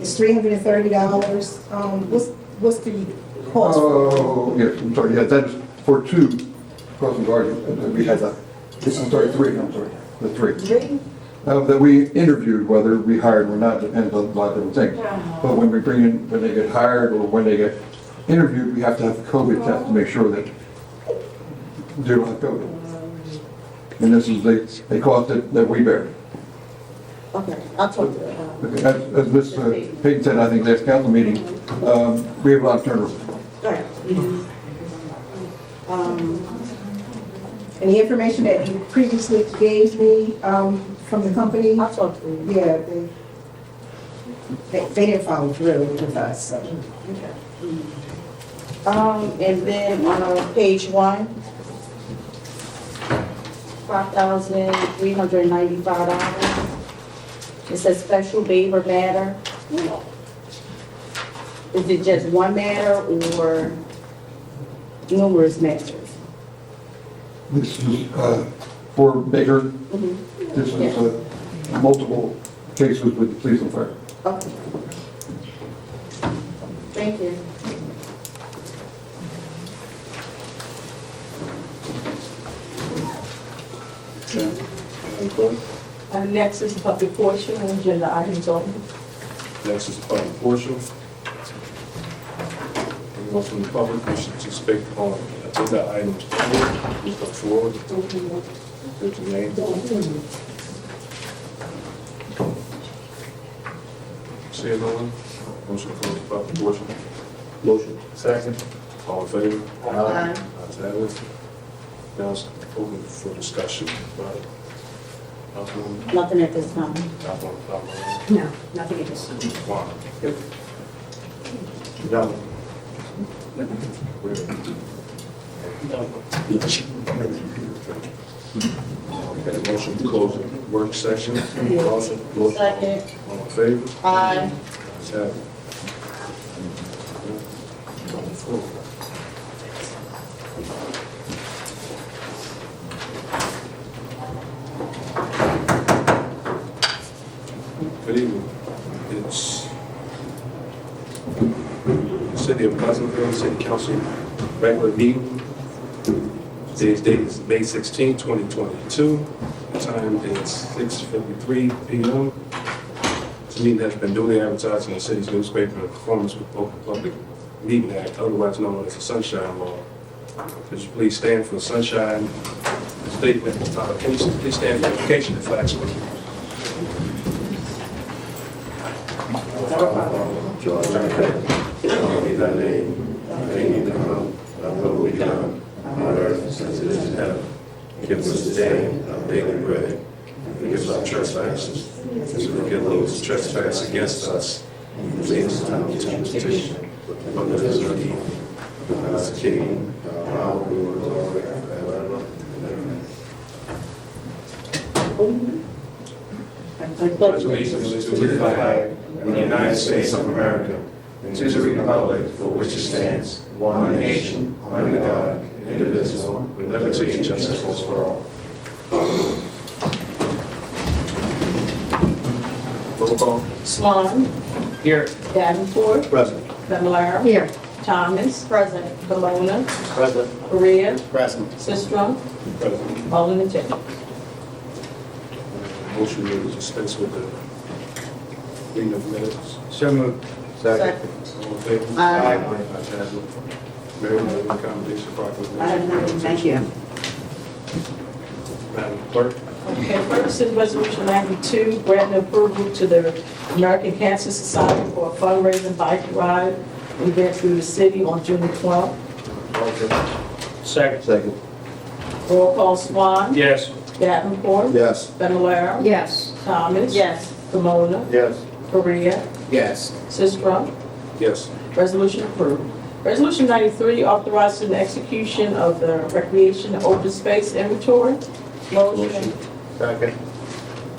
It's three hundred and thirty dollars. Um, what's, what's the cost? Oh, yes, I'm sorry, yeah, that's for two crossing guards, uh, that we had that, I'm sorry, three, I'm sorry, the three. Three? Uh, That we interviewed, whether we hired or not, depends on a lot of different things. But when we bring in, when they get hired or when they get interviewed, we have to have COVID test to make sure that they don't have COVID. And this is the, the cost that, that we bear. Okay, I'll talk to her. Uh, As, as Ms. Payton said, I think last council meeting, um, we have a lot of turnover. Alright. Um, And the information that you previously gave me, um, from the company, I'll talk to her. yeah, they, they, they didn't follow through with us, so. Um, and then on uh, page one, five thousand three hundred ninety-five dollars. It says special waiver matter. Is it just one matter or numerous matters? This is, uh, for Baker, Mhm. this is, uh, multiple cases with the police and fire. Okay. Thank you. Uh, Next is the public portion and agenda items only. Next is the public portion. Anyone from the public wishing to speak on agenda items, please come forward. Give your name. Seeing no one, motion to close the public portion. Motion. Second. All in favor? Aye. Ayes have it. Now it's open for discussion by Councilwoman, Nothing at this time. Councilwoman, Councilwoman. No, nothing at this time. Juan. No. Okay, motion to close the work session. Motion. Second. All in favor? Aye. Ayes have it. Good evening. It's City of Pleasantville City Council regular meeting. Today's date is May 16, 2022. The Time is 6:53 PM. This meeting has been duly advertised in the city's newspaper in accordance with Open Public Meeting Act, otherwise known as the Sunshine Law. Could you please stand for the Sunshine Statement? Uh, Can you please stand for the invocation and flag salute? trespass against us, and lead us not into temptation, but deliver us from evil. For thine is the kingdom, the power, and the glory forever. Amen. Pledge allegiance to the flag of the United States of America and to the republic for which it stands, one nation, under God, indivisible, with liberty and justice for all. Roll call. Swan. Here. Davenport. Present. Fablelaro. Here. Thomas. Present. Camona. Present. Korea. Present. Sistrum. Present. Bowling and Chair. Motion to dispense with the reading of minutes. So moved. Second. All in favor? Aye. Ayes have it. Mayor, will you accommodation proclamation? I have none. Thank you. Madam Clerk? Okay, first is resolution ninety-two, granting approval to the American Cancer Society for a fundraising bike ride event through the city on June twelfth. Second. Second. Roll call Swan. Yes. Davenport. Yes. Fablelaro. Yes. Thomas. Yes. Camona. Yes. Korea. Yes. Sistrum. Yes. Resolution approved. Resolution 93, authorizing the execution of the recreation and open space inventory. Motion. Second.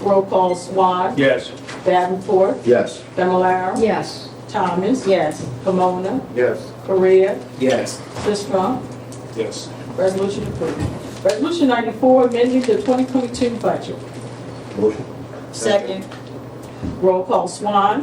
Roll call Swan. Yes. Davenport. Yes. Familar. Yes. Thomas. Yes. Pomona. Yes. Korea. Yes. Sistrum. Yes. Resolution approved. Resolution 94, amending the 2022 budget. Second. Roll call Swan.